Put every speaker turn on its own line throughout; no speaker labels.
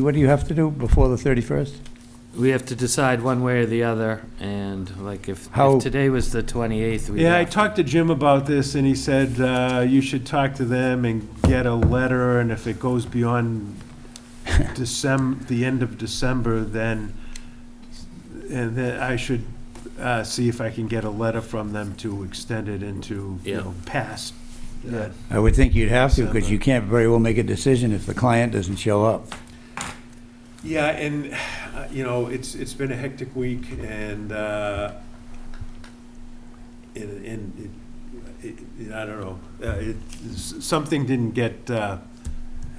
What do you have to do before the 31st?
We have to decide one way or the other, and like if,
How-
if today was the 28th, we
Yeah, I
have
talked to Jim about this, and he said uh, you should talk to them and get a letter, and if it goes beyond December, the end of December, then, and then I should uh, see if I can get a letter from them to extend it into, you
Yeah.
know, past. that.
I would think you'd have to, because you can't very well make a decision if the client doesn't show up.
Yeah, and, uh, you know, it's, it's been a hectic week, and, uh, and, and, it- it- I don't know, Uh, it, s- something didn't get, uh,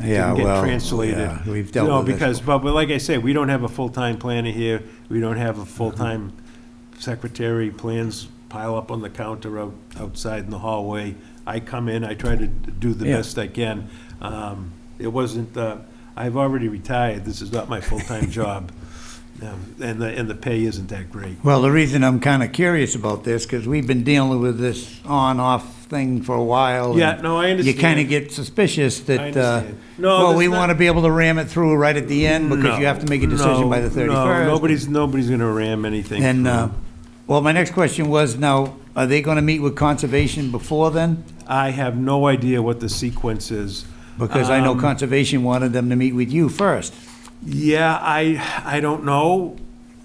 Yeah,
Didn't get
well,
translated.
yeah, We've
No,
dealt with this.
because, but, but like I say, we don't have a full-time planner here, we don't have a full-time secretary, plans pile up on the counter out, outside in the hallway. I come in, I try to do the
Yeah.
best I can. Um, it wasn't, uh, I've already retired, this is not my full-time job. Um, And the, and the pay isn't that great.
Well, the reason I'm kind of curious about this, because we've been dealing with this on-off thing for a while. and
Yeah, no, I
You
understand.
kind of get suspicious
I
that, uh,
understand. No,
well,
that's
we
not-
want to be able to ram it through right at the end, because you
No,
have to make a decision by the
no, no,
31st.
Nobody's, nobody's gonna ram anything.
And,
through.
uh, well, my next question was, now, are they going to meet with conservation before then?
I have no idea what the sequence is.
Because I know
Um,
conservation wanted them to meet with you first.
Yeah, I, I don't know.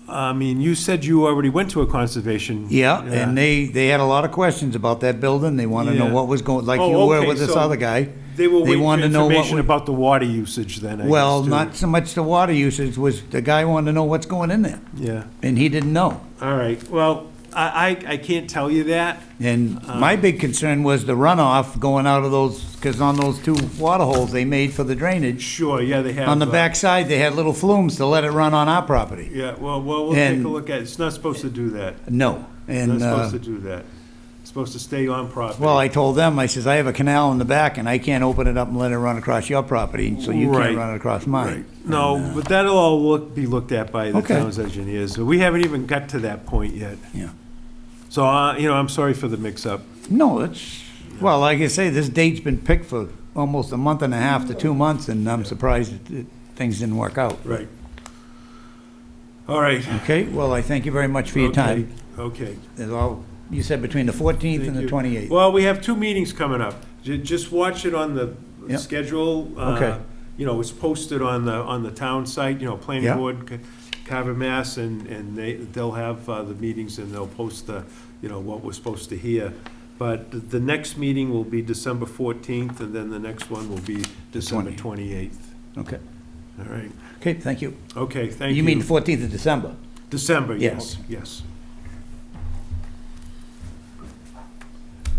I mean, you said you already went to a conservation.
Yeah, and they, they had a lot of questions about that building. They want to know
Yeah.
what was going, like you
Oh,
were
okay,
with this
so
other guy.
They were
They
waiting for
wanted to know what
information
we-
about the water usage then, I guess.
Well,
too.
not so much the water usage, was the guy wanted to know what's going in there,
Yeah,
and he didn't know.
all right. Well, I, I, I can't tell you that.
And
Uh.
my big concern was the runoff going out of those, because on those two water holes they made for the drainage,
Sure, yeah, they have.
on the
uh,
backside, they had little flumes to let it run on our property.
Yeah, well, well, we'll take
And-
a look at it. It's not supposed to do that.
No,
It's not
and, uh,
supposed to do that. It's supposed to stay on property.
well, I told them, I says, I have a canal in the back, and I can't open it up and let it run across your property, so you
Right.
can't run it across mine.
Right. No, but that'll all look, be looked at by the
Okay.
town's engineers. We haven't even got to that point yet.
Yeah.
So, uh, you know, I'm sorry for the mix-up.
No, it's, well, like I say, this date's been picked for almost a month and a half to two months, and I'm surprised that uh, things didn't work out.
Right. All right.
Okay, well, I thank you very much for your time.
Okay. okay.
As all, you said between the 14th and
Thank
the
you.
28th.
Well, we have two meetings coming up. Ju- Just watch it on the
Yep.
schedule. Uh,
Okay.
You know, it's posted on the, on the town site, you know, planning
Yeah.
board, Ca- Carver, Mass, and, and they, they'll have uh, the meetings and they'll post the, you know, what we're supposed to hear. But the- the next meeting will be December 14th, and then the next one will be December 28th.
Okay,
All right.
okay, thank you.
Okay, thank you.
You mean 14th of December?
December,
Yeah.
yes, yes.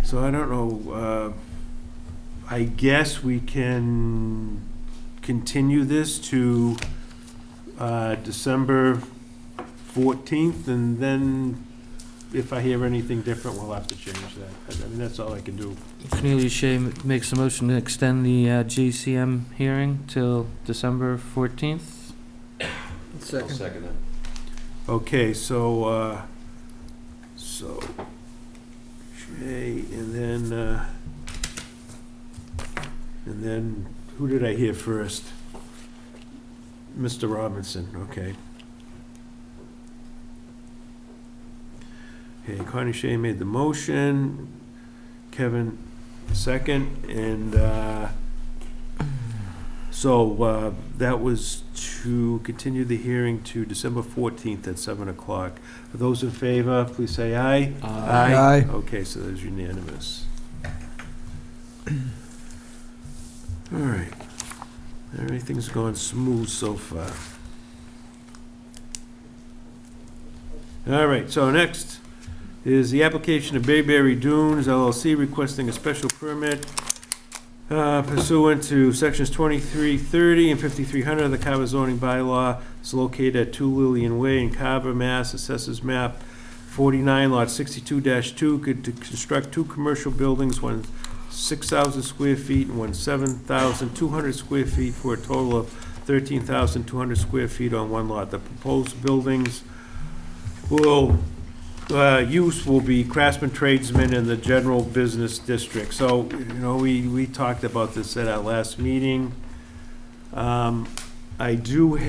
So I don't know, uh, I guess we can continue this to uh, December 14th, and then if I hear anything different, we'll have to change that. I mean, that's all I can do.
Cornelius Shea m- makes a motion to extend the uh, GCM hearing till December 14th.
second
Okay, so, uh, so, Shay, and then, uh, and then, who did I hear first? Mr. Robinson, okay. Okay, Connie Shay made the motion, Kevin second, and, uh, so uh, that was to continue the hearing to December 14th at 7 o'clock. Those in favor, please say aye.
Aye.
Okay, so that is unanimous. All right. Everything's gone smooth so far. All right, so next is the application of Bayberry Dunes LLC requesting a special permit uh, pursuant to sections 2330 and 5300 of the Carver zoning bylaw. It's located at 2 Lillian Way in Carver, Mass. Assesses map 49, lot 62-2, could to construct two commercial buildings, one 6,000 square feet and one 7,200 square feet, for a total of 13,200 square feet on one lot. The proposed buildings will, uh, use will be craftsman tradesmen in the general business district. So, you know, we, we talked about this at our last meeting. Um, I do